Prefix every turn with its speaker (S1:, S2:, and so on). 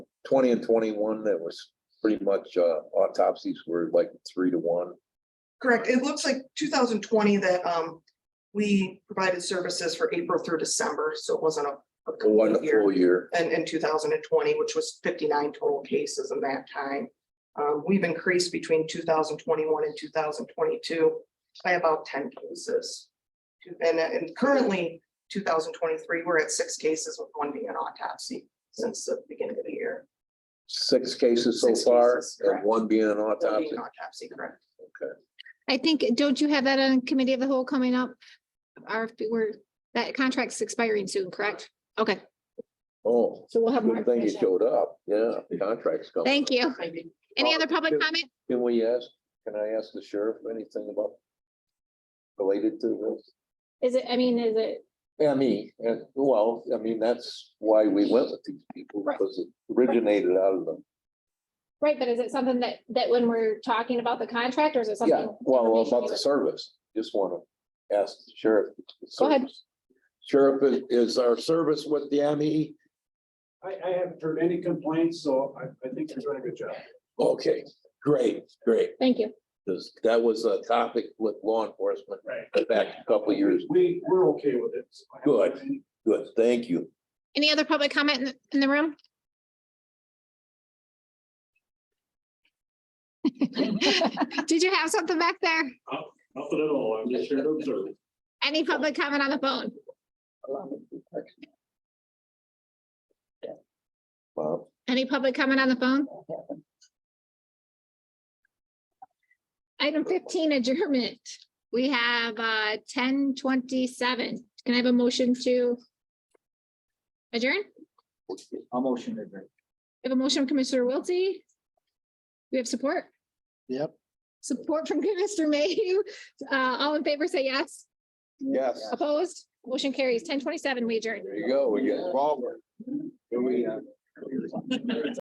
S1: twenty and twenty-one, that was pretty much uh, autopsies were like three to one.
S2: Correct. It looks like two thousand twenty that um we provided services for April through December, so it wasn't a. a
S1: for One
S2: complete year.
S1: full year.
S2: And in two thousand and twenty, which was fifty-nine total cases in that time. Um, we've increased between two thousand twenty-one and two thousand twenty-two by about ten cases. And and currently, two thousand twenty-three, we're at six cases with one being an autopsy since the beginning of the year.
S1: Six cases so
S2: Six
S1: far,
S2: cases,
S1: and
S2: correct.
S1: one being an
S2: One being
S1: autopsy.
S2: an Autopsy, correct?
S1: Okay.
S3: I think, don't you have that on committee of the whole coming up? RFP, where that contract's expiring soon, correct? Okay,
S1: Oh,
S3: so we'll have more
S1: good thing you
S3: information.
S1: showed up. Yeah, contracts coming.
S3: Thank you.
S2: Maybe.
S3: Any other public
S1: Well,
S3: comment?
S1: Can we ask, can I ask the sheriff anything about related to this?
S3: Is it, I mean, is it,
S1: Yeah, me, and well, I mean, that's why we went with these people,
S3: Right.
S1: because it originated out of them.
S3: right, but is it something that, that when we're talking about the contract, or is it
S1: Yeah,
S3: something?
S1: well, about the service, just wanna ask the sheriff. the
S3: Go ahead.
S1: service. Sheriff, is- is our service with the E? ME?
S4: I, I haven't heard any complaints, so I, I think you're doing a good job.
S1: Okay, great, great,
S3: Thank you.
S1: 'Cause that was a topic with law enforcement
S4: Right.
S1: back a couple years,
S4: We, we're okay with it. I haven't heard
S1: Good.
S4: any-
S1: good, thank you.
S3: Any other public comment in, the- in the room? Did you have something back there?
S5: Nothing at all, I'm just here to observe.
S3: Any public comment on the phone?
S1: Wow,
S3: Any public comment on the phone? Item fifteen adjournment. We have uh ten twenty-seven. Can I have a motion to adjourn?
S6: I'll motion to adjourn.
S3: We have a motion from Commissioner Wiltie. We have support?
S6: Yep.
S3: Support from Commissioner Mayhew. Uh, all in favor, say yes.
S1: yes,
S3: Opposed? Motion carries ten twenty-seven, we adjourn.
S1: there you go, we get involved.
S6: Here we, uh,